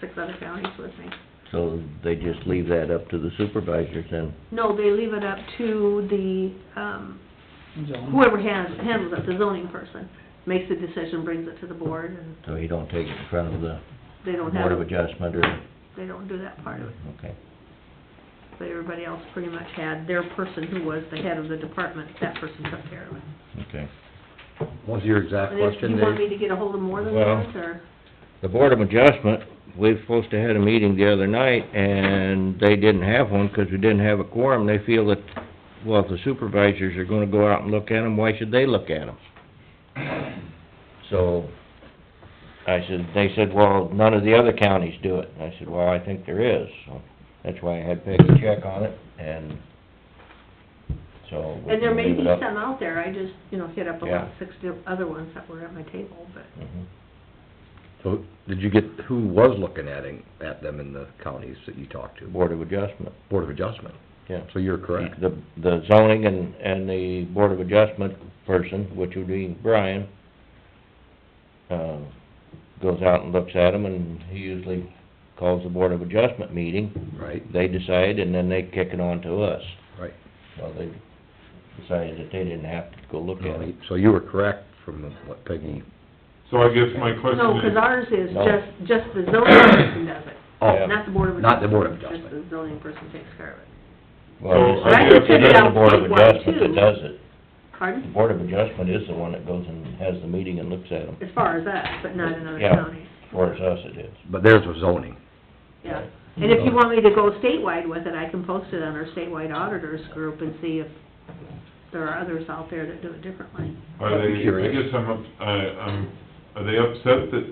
six other counties with me. So they just leave that up to the supervisors then? No, they leave it up to the, um, Zone. whoever has, handles it, the zoning person, makes the decision, brings it to the board, and So you don't take it in front of the they don't have, Board of Adjustment or, they don't do that part of it. okay. But everybody else pretty much had their person who was the head of the department, that person took care of it. Okay. What was your exact And if question, you want me to Dave? get a hold of more than Well- that, or? The Board of Adjustment, we were supposed to had a meeting the other night, and they didn't have one because we didn't have a quorum. They feel that, well, if the supervisors are gonna go out and look at them, why should they look at them? So, I said, they said, well, none of the other counties do it. And I said, well, I think there is, so that's why I had Peggy check on it, and so. we And there can may leave be it up. some out there, I just, you know, hit up about Yeah. six di- other ones that were at my table, but Mhm. So, did you get, who was looking at, it- at them in the counties that you talked to? Board of Adjustment, Board of Adjustment, yeah. so you're correct. The, the zoning and, and the board of adjustment person, which would be Brian, uh, goes out and looks at them, and he usually calls the board of adjustment meeting. Right, They decide, and then they kick it on to us. right. Well, they decided that they didn't have to go look at it. So you were correct from what Peggy, So I guess my No, question because is, ours is No. just, just the zoning person does it, oh, not the board of adjustment. Not the Board of Just the zoning person takes care of it. Well, So, it's- I it's guess- the other board of adjustment Too. that does it. The Pardon? board of adjustment is the one that goes and has the meeting and looks at them. As far as us, but not in other Yeah. counties. Whereas us, it is. but theirs was zoning. Yeah. And if you want me to go statewide with it, I can post it on our statewide auditors group and see if there are others out there that do it differently. are they, I Curious. guess I'm, up- I, I'm, are they upset that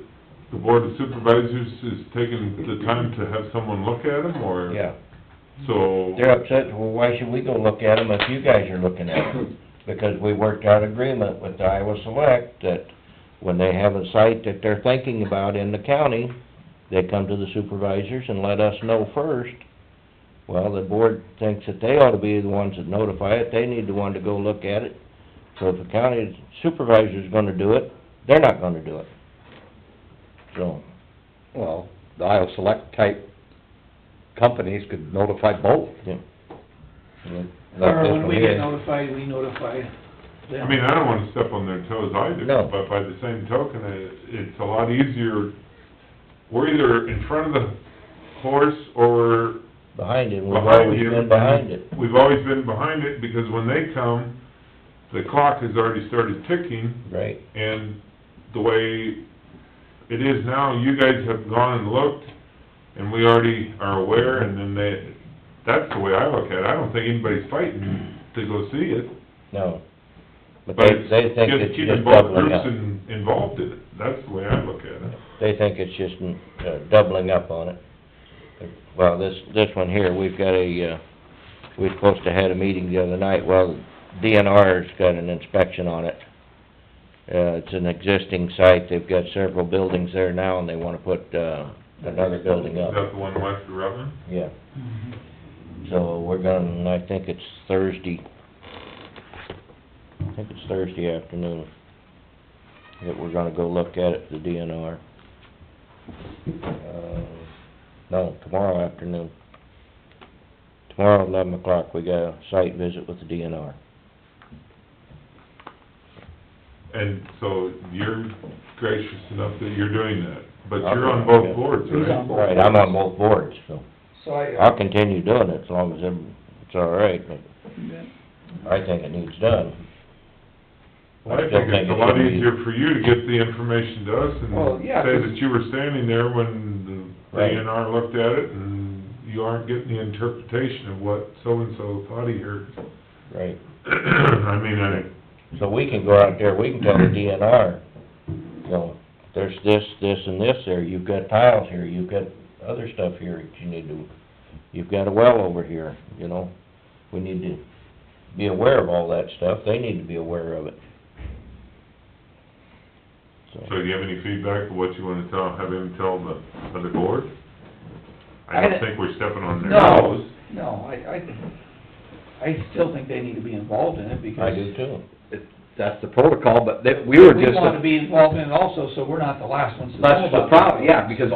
the board of supervisors is taking the time to have someone look at them, or? Yeah. So, They're upset, well, why should we go look at them if you guys are looking at them? Because we worked out agreement with Iowa Select that when they have a site that they're thinking about in the county, they come to the supervisors and let us know first. Well, the board thinks that they ought to be the ones that notify it, they need the one to go look at it. So if the county supervisor's gonna do it, they're not gonna do it. So, Well, the Iowa Select type companies could notify both. yeah. Like this Or when one we here. get notified, we notify them. I mean, I don't wanna step on their toes either, No. but by the same token, I- it's a lot easier, we're either in front of the horse or behind it, we've behind always you. been behind it. We've always been behind it, because when they come, the clock has already started ticking, Right. And the way it is now, you guys have gone and looked, and we already are aware, and then they, that's the way I look at it. I don't think anybody's fighting to go see it. No. But But they, it's they think just it's keeping just both doubling up. groups in- Involved in it. That's the way I look at it. They think it's just uh, doubling up on it. Well, this, this one here, we've got a, uh, we're supposed to had a meeting the other night. Well, DNR's got an inspection on it. Uh, it's an existing site. They've got several buildings there now and they wanna put, uh, another building Is up. that the one west of Rutland? Yeah. uh, So we're gonna, I think it's Thursday, I think it's Thursday afternoon that we're gonna go look at it, the DNR. Uh, No, tomorrow afternoon. Tomorrow, eleven o'clock, we got a site visit with the DNR. And so you're gracious enough that you're doing that, but Okay, you're on yeah. both boards, He's on right? both. Right, I'm on both boards, so So I, uh, I'll continue doing it as long as I'm- it's all right, but I think it needs done. Well, I think it's a lot should be- easier for you to get the information to us and Well, yeah, say 'cause- that you were standing there when the Right. DNR looked at it and you aren't getting the interpretation of what so-and-so thought he heard. Right. I mean, I, So we can go out there, we can tell the DNR, you know, there's this, this, and this there, you've got tiles here, you've got other stuff here that you need to, you've got a well over here, you know? We need to be aware of all that stuff, they need to be aware of it. So, so do you have any feedback of what you wanna tell, have him tell the other board? I I- don't think we're stepping on their no, toes. no, I, I, I still think they need to be involved in it because. I do too. That's the protocol, but that, we were We just, want to be involved in it also, so we're not the last ones to know that's the about it. problem, yeah, because